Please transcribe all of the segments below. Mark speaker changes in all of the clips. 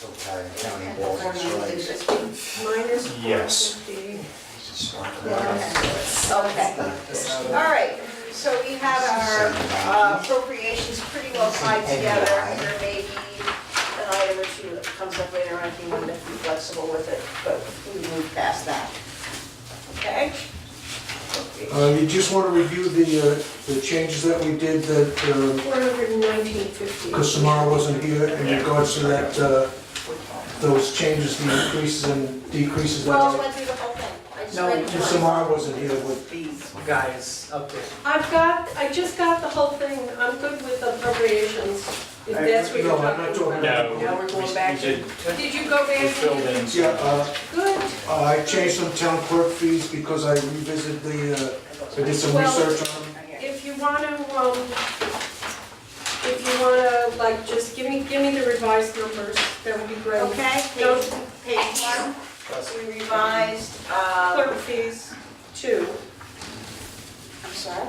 Speaker 1: entire county wall is right.
Speaker 2: Minus
Speaker 1: Yes.
Speaker 2: 450.
Speaker 3: Okay, all right, so we have our uh, appropriations pretty well tied together. There may be an item or two that comes up later on if you want to be flexible with it, but we moved past that. Okay?
Speaker 4: Uh, You just want to review the, uh, the changes that we did that,
Speaker 2: 419.50.
Speaker 4: because Samara wasn't here in regards to that, uh, those changes, the increases and decreases that
Speaker 3: Well, I
Speaker 4: I...
Speaker 3: went through the whole thing. I just
Speaker 5: No,
Speaker 3: read the
Speaker 4: and
Speaker 3: line.
Speaker 4: Samara wasn't here with,
Speaker 5: These guys up there.
Speaker 2: I've got, I just got the whole thing, I'm good with appropriations, if that's what you're
Speaker 4: No, I'm not
Speaker 2: talking
Speaker 4: talking
Speaker 2: about.
Speaker 4: No,
Speaker 5: No, Now we're going back
Speaker 6: we did-
Speaker 5: to,
Speaker 2: Did you go back
Speaker 6: We
Speaker 2: and
Speaker 6: filled
Speaker 2: you
Speaker 6: in.
Speaker 4: yeah, uh,
Speaker 2: good?
Speaker 4: I changed some town clerk fees because I revisited the, uh, I did some
Speaker 2: Well-
Speaker 4: research on them.
Speaker 2: If you want to, um, if you want to, like, just give me, give me the revised numbers, that would be great.
Speaker 3: Okay,
Speaker 2: Don't
Speaker 3: page, page one, we revised,
Speaker 2: clerk
Speaker 3: uh,
Speaker 2: fees, two,
Speaker 3: I'm sorry.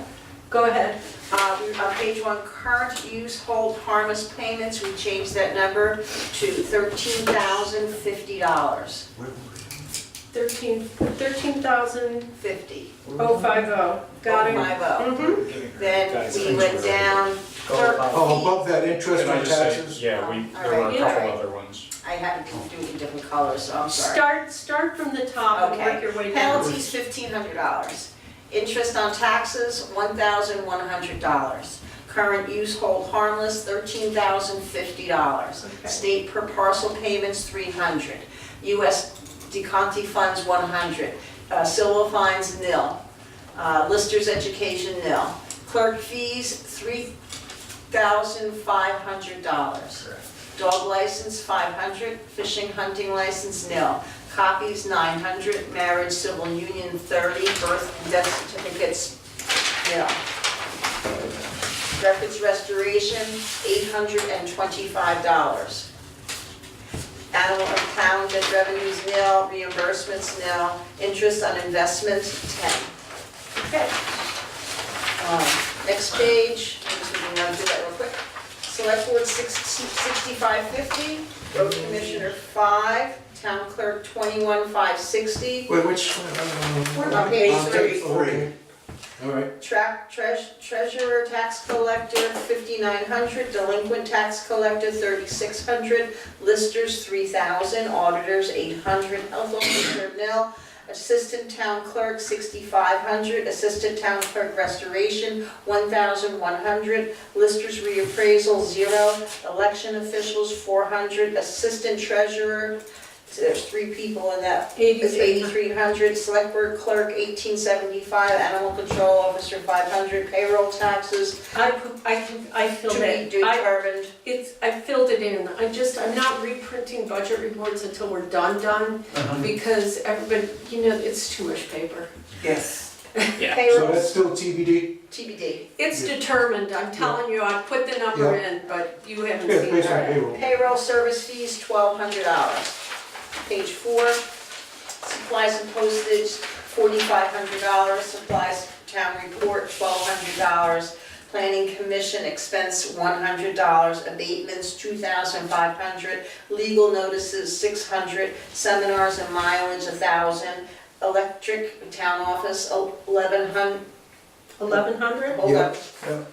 Speaker 2: go ahead.
Speaker 3: Uh, we- On page one, current use hold harmless payments, we changed that number to $13,050.
Speaker 2: Thirteen, thirteen thousand
Speaker 3: 50.
Speaker 2: oh five oh, got it?
Speaker 3: Five oh.
Speaker 2: Mm-hmm,
Speaker 3: Then we went down, clerk
Speaker 4: Oh,
Speaker 3: fee.
Speaker 4: above that, interest
Speaker 6: Can I
Speaker 4: on
Speaker 6: just say,
Speaker 4: taxes.
Speaker 6: yeah, we,
Speaker 3: All
Speaker 6: there were
Speaker 3: right.
Speaker 6: a
Speaker 2: Yeah.
Speaker 6: couple other ones.
Speaker 3: I had to do it in different colors, so I'm sorry.
Speaker 2: start, start from the top and work your way down.
Speaker 3: Penalties, $1,500. Interest on taxes, $1,100. Current use hold harmless, $13,050.
Speaker 2: Okay.
Speaker 3: State per parcel payments, 300. US DeConti funds, 100. Uh, Silva fines, nil. Uh, Listers education, nil. Clerk fees, $3,500. Dog license, 500. Fishing, hunting license, nil. Copies, 900. Marriage, civil union, 30. Birth and death certificates, nil. Records restoration, $825. Animal and pound debt revenues, nil. Reimbursements, nil. Interest on investments, 10. Okay. Um, Next page, I'm just gonna run through that real quick. Select Board 60 6550, Road Commissioner 5, Town Clerk 21560,
Speaker 4: Wait, which? We're
Speaker 3: on page
Speaker 4: three. All right.
Speaker 3: Track treas- Treasurer Tax Collector 5900, Delinquent Tax Collector 3600, Listers 3000, Auditors 800, Health Officer nil, Assistant Town Clerk 6500, Assistant Town Clerk Restoration 1100, Listers Reappraisal 0, Election Officials 400, Assistant Treasurer, there's three people in that is
Speaker 2: Eighty-three.
Speaker 3: eighty-three hundred, select board clerk eighteen seventy-five, animal control officer five hundred, payroll taxes
Speaker 2: I, pu- I, can- I
Speaker 3: to
Speaker 2: filled
Speaker 3: be
Speaker 2: it. I,
Speaker 3: determined.
Speaker 2: it's, I filled it in. I just, I'm not reprinting budget reports until we're done, done, because everybody, you know, it's too much paper.
Speaker 5: yes.
Speaker 6: Yeah.
Speaker 4: So
Speaker 3: Payroll
Speaker 4: that's still TBD?
Speaker 3: TBD.
Speaker 2: It's
Speaker 4: Yeah.
Speaker 2: determined, I'm telling you, I put the number in, but you haven't
Speaker 4: Yeah,
Speaker 2: seen
Speaker 4: based on
Speaker 2: it.
Speaker 4: payroll.
Speaker 3: Payroll service fees twelve hundred dollars. Page four, supplies and postage forty-five hundred dollars, supplies town report twelve hundred dollars, planning commission expense one hundred dollars, abatements two thousand five hundred, legal notices, six hundred, seminars and mileage, a thousand, electric, town office, eleven hundred.
Speaker 2: Eleven hundred?
Speaker 4: Yeah, yeah.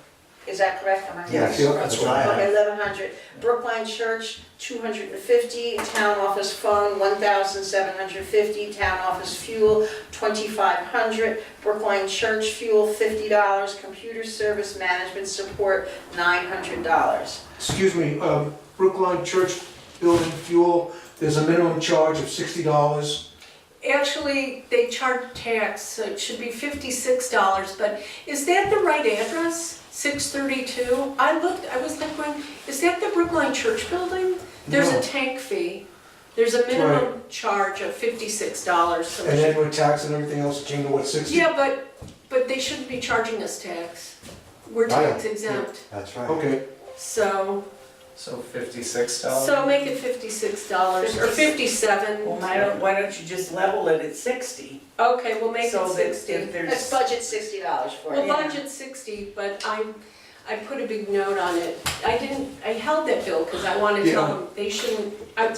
Speaker 3: Is that correct? Am I-
Speaker 1: Yes, that's what I
Speaker 3: Okay,
Speaker 1: had.
Speaker 3: eleven hundred, Brookline Church, two hundred and fifty, town office phone, one thousand seven hundred fifty, town office fuel, twenty-five hundred, Brookline Church fuel, fifty dollars, computer service management support, nine hundred dollars.
Speaker 4: excuse me, um, Brookline Church Building Fuel, there's a minimum charge of sixty dollars.
Speaker 2: Actually, they charge tax, so it should be fifty-six dollars, but is that the right address? Six thirty-two? I looked, I was like, going, is that the Brookline Church building? There's a
Speaker 4: No.
Speaker 2: tank fee. There's a minimum charge of fifty-six dollars, so.
Speaker 4: And then with tax and everything else, it came to what, sixty?
Speaker 2: Yeah, but, but they shouldn't be charging us tax. We're
Speaker 1: Right.
Speaker 2: tax exempt,
Speaker 1: That's right.
Speaker 4: Okay,
Speaker 2: so,
Speaker 6: So fifty-six
Speaker 2: so make it fifty-six dollars or fifty-seven.
Speaker 5: Well, why don't, why don't you just level it at sixty?
Speaker 2: Okay, we'll make it
Speaker 5: so that
Speaker 2: sixty.
Speaker 5: If
Speaker 3: Let's
Speaker 5: there's,
Speaker 3: budget sixty dollars for
Speaker 2: We'll
Speaker 3: it.
Speaker 2: budget sixty, but I, I put a big note on it. I didn't, I held that bill because I want to tell
Speaker 4: Yeah.
Speaker 2: them they shouldn't, I